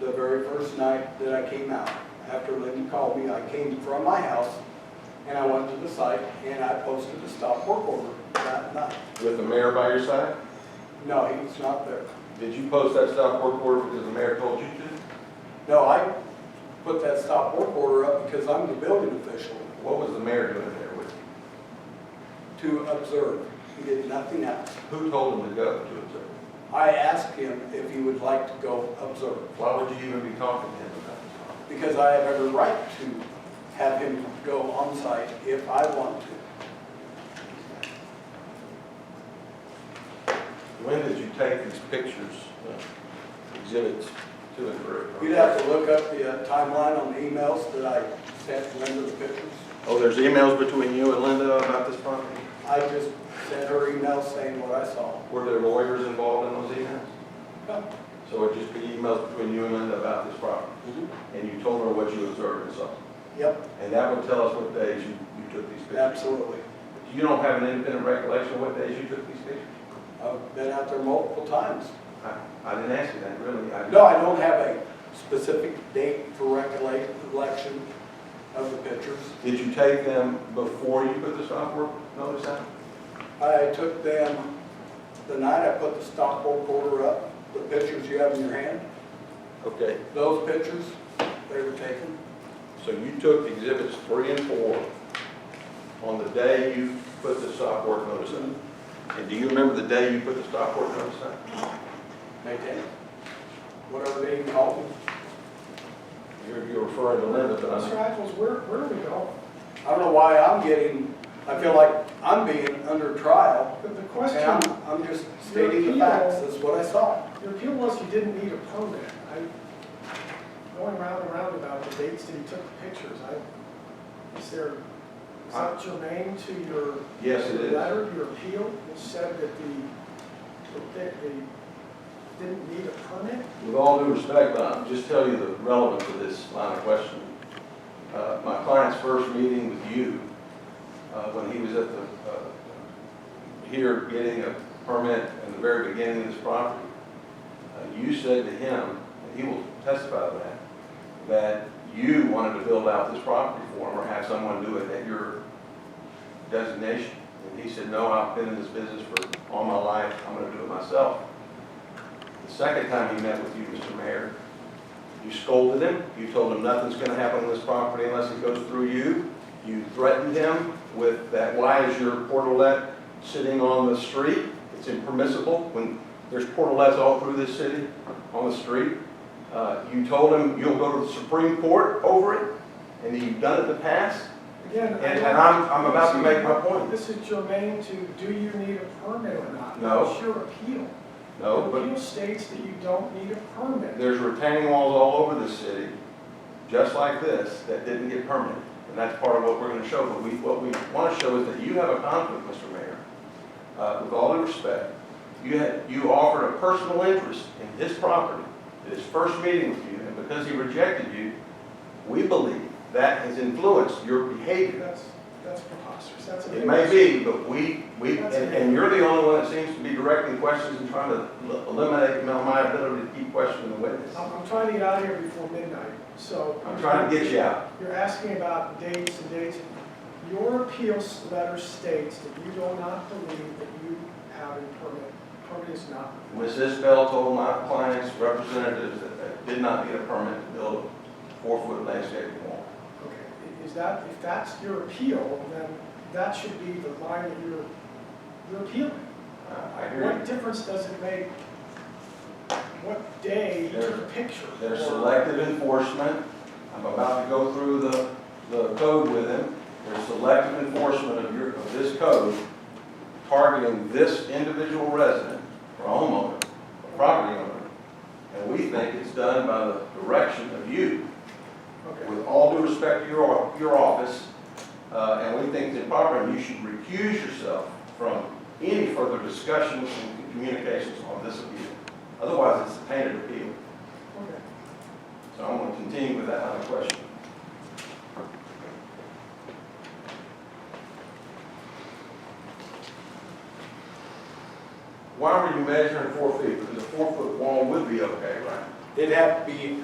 the very first night that I came out, after Linda called me, I came from my house and I went to the site and I posted a stop work order that night. With the mayor by your side? No, he was not there. Did you post that stop work order because the mayor told you to? No, I put that stop work order up because I'm the building official What was the mayor doing there with you? to observe. He did nothing else. Who told him to go to observe? I asked him if he would like to go observe, Why would you even be talking to him about this? because I have every right to have him go on site if I want to. When did you take these pictures, uh, exhibits to and from? You'd have to look up the uh, timeline on the emails that I sent Linda the pictures. Oh, there's emails between you and Linda about this property? I just sent her email saying what I saw. Were there lawyers involved in those emails? So it'd just be emails between you and Linda about this property? And you told her what you observed and saw? Yep, And that would tell us what days you, you took these pictures? absolutely. You don't have an independent recollection of what days you took these pictures? I've been out there multiple times. I, I didn't ask you that, really. I- No, I don't have a specific date for recollection of the pictures. Did you take them before you put the stop work notice out? I took them, the night I put the stop work order up, the pictures you have in your hand, Okay, those pictures, they were taken. so you took exhibits three and four on the day you put the stop work notice out? And do you remember the day you put the stop work notice out? May tenth, whatever they even called them. You're, you're referring to Linda, but Mr. I'm, Michaels, where, where are we going? I don't know why I'm getting, I feel like I'm being under trial. But the And question, I'm, I'm just stating the facts, that's what I saw. your appeal was you didn't need a permit. I, going round and round about the dates that you took the pictures, I, is there, is that germane to your? Yes, it is. your Letter, your appeal, which said that the, that they didn't need a permit? with all due respect, but I'm just telling you the relevance of this line of questioning. Uh, my client's first meeting with you, uh, when he was at the, uh, here getting a permit in the very beginning of this property, uh, you said to him, and he will testify to that, that you wanted to build out this property for him or have someone do it at your designation. And he said, no, I've been in this business for all my life, I'm gonna do it myself. The second time he met with you, Mr. Mayor, you scolded him, you told him nothing's gonna happen on this property unless it goes through you. You threatened him with that, why is your portalette sitting on the street? It's impermissible when there's portalettes all through this city on the street. Uh, you told him you'll go to the Supreme Court over it, and you've done it in the past, Again, I. and, and I'm, I'm about to make my point. This is germane to, do you need a permit or not? No. It's your appeal. No, Your but appeal states that you don't need a permit. There's retaining walls all over the city, just like this, that didn't get permitted. And that's part of what we're gonna show, but we, what we wanna show is that you have a conflict, Mr. Mayor. Uh, with all due respect, you had, you offered a personal interest in his property at his first meeting with you, and because he rejected you, we believe that has influenced your behavior. That's, that's preposterous, that's a. It may be, but we, we, and, and you're the only one that seems to be directing questions and trying to l- eliminate my- my ability to keep questioning the witness. I'm, I'm trying to get out of here before midnight, so. I'm trying to get you out. You're asking about dates and dates. Your appeals letter states that you do not believe that you have a permit. Permit is not. Mrs. Bell told my client's representatives that they did not get a permit to build a four-foot landscaping wall. Okay, is that, if that's your appeal, then that should be the line that you're, you're appealing. Uh, I I hear What you. difference does it make what day you took a picture? There's or- selective enforcement. I'm about to go through the, the code with him. There's selective enforcement of your, of this code targeting this individual resident or homeowner, or property owner. And we think it's done by the direction of you. Okay, with all due respect to your, your office, uh, and we think it's improper, and you should recuse yourself from any further discussions and communications on this appeal. Otherwise, it's a tainted appeal. okay. So I'm going to continue with that other question. Why were you measuring four feet? Because a four-foot wall would be okay, right? It'd have to be